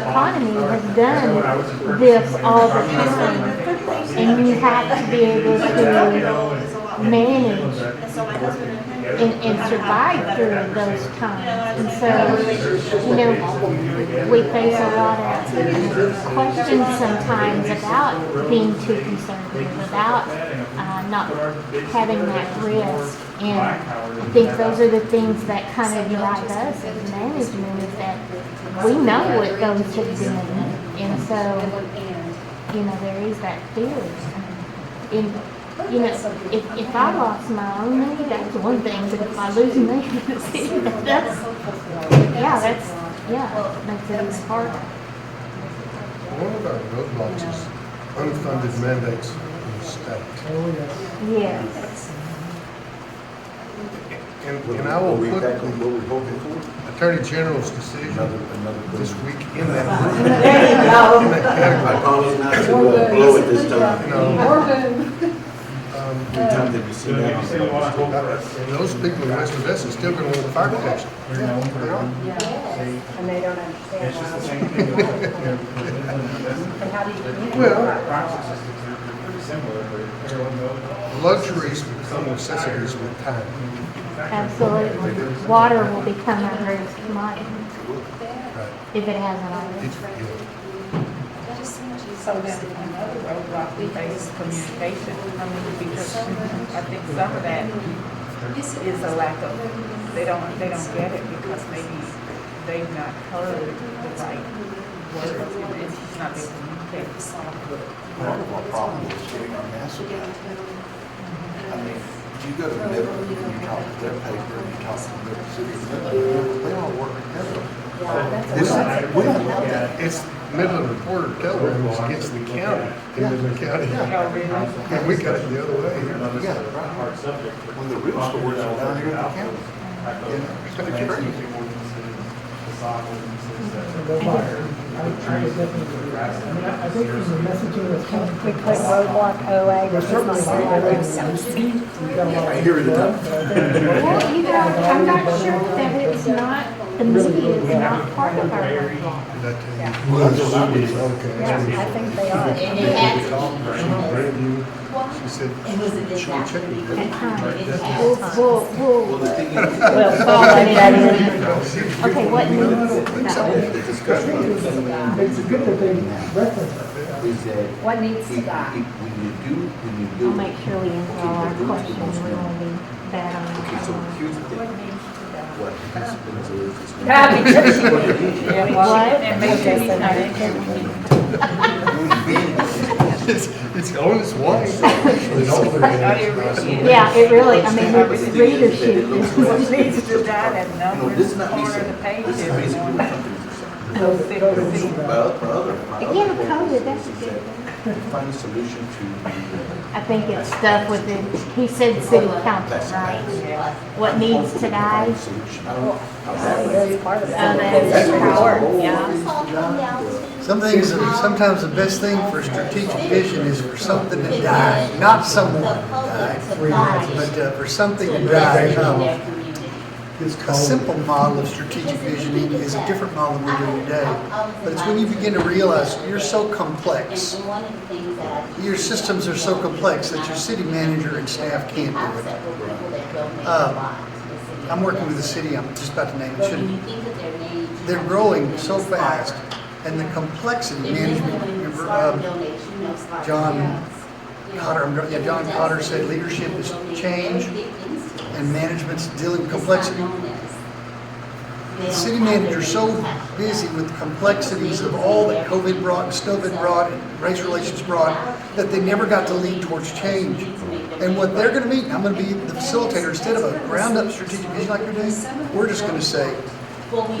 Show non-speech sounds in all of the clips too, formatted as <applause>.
economy has That's what I done was referring to. this all the I'm not- time. And you have to be able to manage And so my husband and Henry. and, and survive during those times. And so, you know, we face a lot of questions sometimes about being too conservative, about uh, not having that uh, risk. And I think those are the things that kind of drive us as management is that we know what goes to the end. And so, you know, there is that fear. And, you know, if, if I lost my own money, that's one thing, but if I lose money, <laughs> <laughs> that's, yeah, that's, yeah, makes it even harder. One of our roadblocks is unfunded mandates in the state. Oh, yes. Yes. And, and I will Are we put exactly the what we're hoping for? Attorney General's decision Another, another. this week in that group. There you In go. that I category. promise not to uh, blow it this You time. know, Morgan. um, Every time that we see So if you say you want to that. hold for us, uh, and those people in West Odessa still gonna want fire protection. you're known for uh, them. And they don't understand. It's just the why. same thing. with, you know, with inland business. And how do you communicate? Well- Our Process systems are they're pretty similar, but everyone knows. Luxuries become necessities with time. Absolutely. Water will become our greatest commodity Right. if it hasn't already. It's- yeah. So then another roadblock we face is communication, I mean, because I think some of that is a lack of, they don't, they don't get it because maybe they've not heard the right words and it's not being communicated. Part of our problem is getting our message out. I mean, you go to Midland, and you talk to their paper, and you talk to their city, of Midland, they all work together. This- We don't have that. It's Midland Reporter telegram is against the county, in Midland County. Oh, <laughs> really? And we got it the other way. Yeah, right. When the real stores are down here in the county. county. you know, it's kinda crazy. I mean, I I think there's a messaging that's kind of We put roadblock OA, There's which is not certainly some allowed. I hear it enough. Well, you know, I'm not sure that it's not, the media is not part of our That, Well, that's what I was- okay. I think they are. She brand new, she said, she will check it. at times. Yeah. We'll, we'll- Well, we'll, the thing is, <laughs> Well, fall like that in. okay, what needs, no. the discussion is It's good that they reference it. that What needs to if- die? if- when you do, when you do. I'll make sure we answer all our Okay, well, questions, who's the most we won't be bad Okay, so on here's the thing, what happens is, is when- Yeah, because What it that. What? And maybe is, is they need not when income. you- when you- It's, it's on its way. It's all there. Oh, you really is. Yeah, it really, I mean, But the thing is that readership <laughs> it looks is like- what It needs to die, that You know, number, this is not me corner of saying, the page this is every basically what morning. companies are saying. Those sick people. My oth- my other, my Yeah, other goal COVID, is- that's is good. that we Find a solution to the. I think it's stuff within, he said city council, right? What needs to die, that's part of Oh, that that. is power, Some things, sometimes the best thing for strategic vision is for something to die, not someone to die, but uh, for something to die. Um, A simple model of strategic visioning is a different model than we do today. But it's when you begin to realize you're so complex, your systems are so complex that your city manager and staff can't do it. Um, I'm working with a city, I'm just about to name it, shouldn't They're growing so fast, and the complexity management, remember, um, John Cotter, I'm dr- yeah, John Cotter said leadership is change and management's dealing with complexity. The city manager's so busy with complexities of all that COVID brought, COVID brought, and race relations brought, that they never got to lead towards change. And what they're gonna meet, and I'm gonna be the facilitator, instead of a ground-up strategic vision like you're doing, we're just gonna say,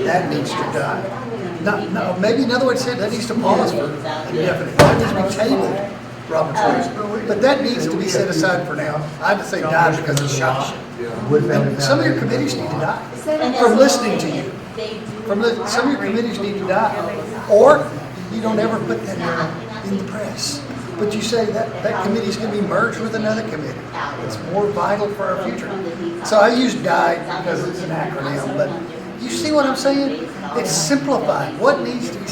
That needs to die. not, no, maybe another way to say it, that needs to pause for indefinite, that needs to be tabled, Robert's rules. But that needs to be set aside for now. I have to say die because it's shot shit. And Some of your committees need to die, From listening to you. from the, some of your committees need to die. Or you don't ever put that in the press. But you say that, that committee's gonna be merged with another committee. It's more vital for our future. So I use die because it's an acronym, but you see what I'm saying? It's simplified. What needs to be